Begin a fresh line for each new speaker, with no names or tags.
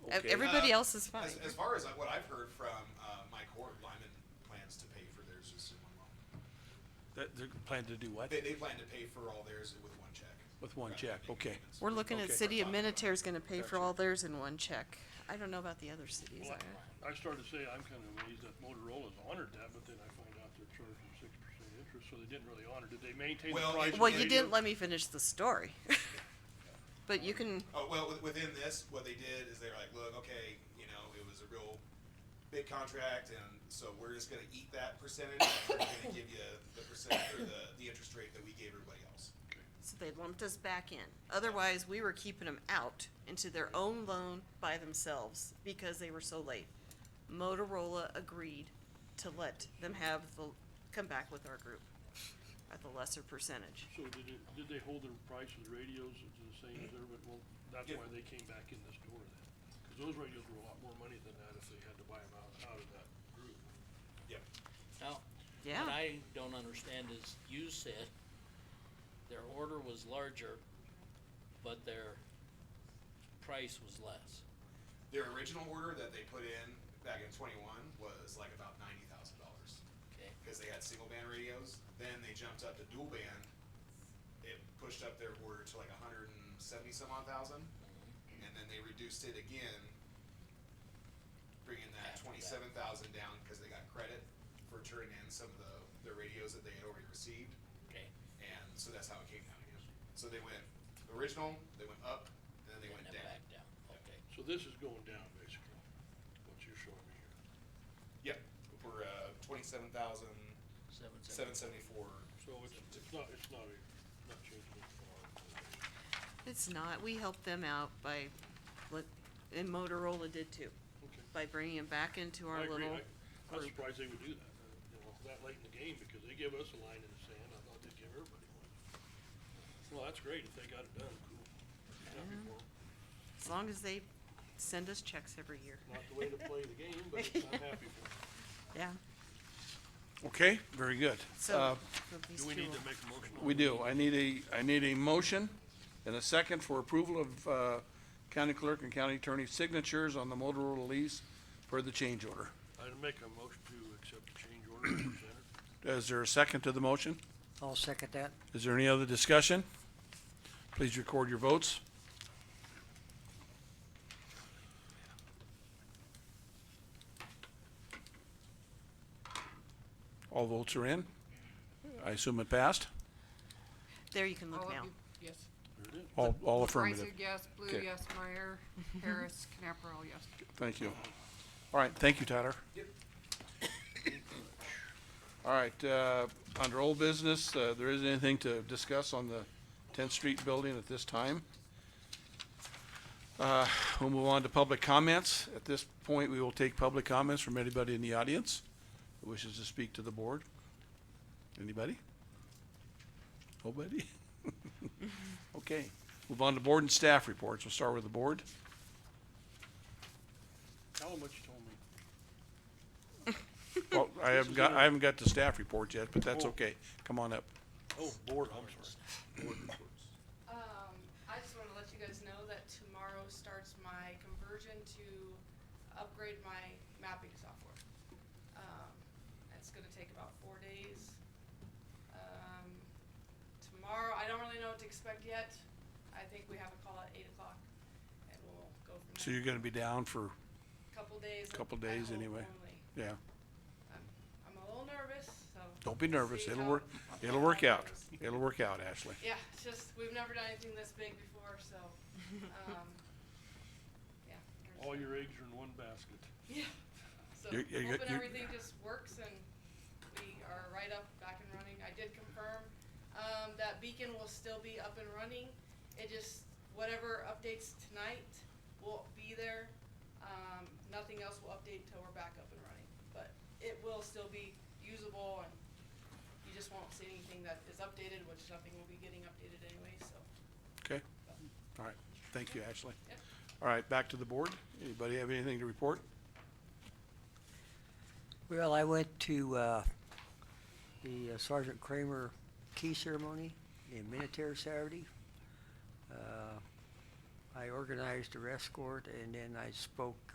Okay.
Everybody
Um,
else is fine.
As, as far as uh, what I've heard from uh, Mike Hort, Lyman plans to pay for theirs just in one loan.
That, they're planning to do what?
They, they plan to pay for all theirs with one check.
With one
rather than
check,
making
okay.
payments.
We're looking at
Okay.
city administrator's gonna pay for
Gotcha.
all theirs in one check. I don't know about the other cities.
Well,
I-
I started to say, I'm kinda amazed that Motorola's honored that, but then I find out they're charging six percent interest, so they didn't really honor, did they maintain the
Well,
price?
it-
Well,
that
you
they
didn't
did?
let me finish the story. But you can,
Oh, well, with- within this, what they did is they were like, look, okay, you know, it was a real big contract, and so we're just gonna eat that percentage, and we're gonna give you the percent, or the, the interest rate that we gave everybody else.
so they lumped us back in. Otherwise, we were keeping them out into their own loan by themselves because they were so late. Motorola agreed to let them have the, come back with our group at the lesser percentage.
So did it, did they hold the price of the radios to the same as everybody, well, that's
Yeah.
why they came back in this door then, cause those radios were a lot more money than that if they had to buy them out, out of that group.
Yep.
Now,
Yeah.
what I don't understand is you said their order was larger, but their price was less.
Their original order that they put in back in twenty-one was like about ninety thousand dollars,
Okay,
because they had single band radios, then they jumped up to dual band. It pushed up their order to like a hundred and seventy some odd thousand, and then they reduced it again, bringing that
After that.
twenty-seven thousand down, because they got credit for turning in some of the, the radios that they had already received,
okay,
and so that's how it came down again. So they went original, they went up, and then they
and
went
then
down.
back down, okay.
So this is going down basically, what you're showing me here.
Yep, we're, uh, twenty-seven thousand,
Seven,
seven
seven.
seventy-four.
So it's, it's not, it's not a, not changing it for our,
It's not, we helped them out by, let- and Motorola did too,
okay.
by bringing them back into our
I agree.
little.
I- I'm surprised they would do that, uh, you know, that late in the game, because they give us a line in the sand, I thought they'd give everybody one. Well, that's great, if they got it done, cool. Happy for 'em.
As long as they send us checks every year.
Not the way to play the game, but I'm happy for 'em.
Yeah,
Okay, very good. Uh,
so.
Do we need to make a motion? on
We
it?
do. I need a, I need a motion and a second for approval of, uh, county clerk and county attorney signatures on the Motorola lease for the change order.
I'd make a motion to accept the change order as presented.
Is there a second to the motion?
I'll second that.
Is there any other discussion? Please record your votes. All votes are in. I assume it passed?
There you can
All
Oh,
look
of
now.
you- Yes.
There it is.
All, all affirmative.
Isaac, yes. Blue,
Okay.
yes. Meyer, Harris, Knapperl, yes.
Thank you. All right, thank you, Tyler. All right, uh, under old business, uh, there isn't anything to discuss on the Tenth Street building at this time. Uh, we'll move on to public comments. At this point, we will take public comments from anybody in the audience who wishes to speak to the board. Anybody? Nobody? Okay, move on to board and staff reports. We'll start with the board.
Tell them what you told me.
Well, I haven't
is
got,
in a-
I haven't got the staff report yet, but that's
Oh.
okay. Come on up.
Oh, board, I'm sorry.
Um, I just wanna let you guys know that tomorrow starts my conversion to upgrade my mapping software. Um, it's gonna take about four days. Um, tomorrow, I don't really know what to expect yet. I think we have a call at eight o'clock and we'll go from there.
So you're gonna be down for,
Couple days. at-
couple
at
days
home
anyway.
only.
yeah.
I'm, I'm a little nervous, so.
Don't be
we'll
nervous.
see
It'll
how-
work, it'll
how
work
it
out.
goes.
It'll work out, Ashley.
Yeah, it's just, we've never done anything this big before, so, um, yeah. we're just
All
gonna-
your eggs are in one basket.
Yeah, so
You're- you're-
hoping
you're-
everything just works and we are right up, back and running. I did confirm, um, that beacon will still be up and running. It just, whatever updates tonight will be there. Um, nothing else will update till we're back up and running, but it will still be usable and you just won't see anything that is updated, which nothing will be getting updated anyway, so.
Okay? All right. Thank you, Ashley.
Yep.
All right, back to the board. Anybody have anything to report?
Well, I went to, uh, the uh, Sergeant Kramer key ceremony in Minnetonka Saturday. Uh, I organized a escort and then I spoke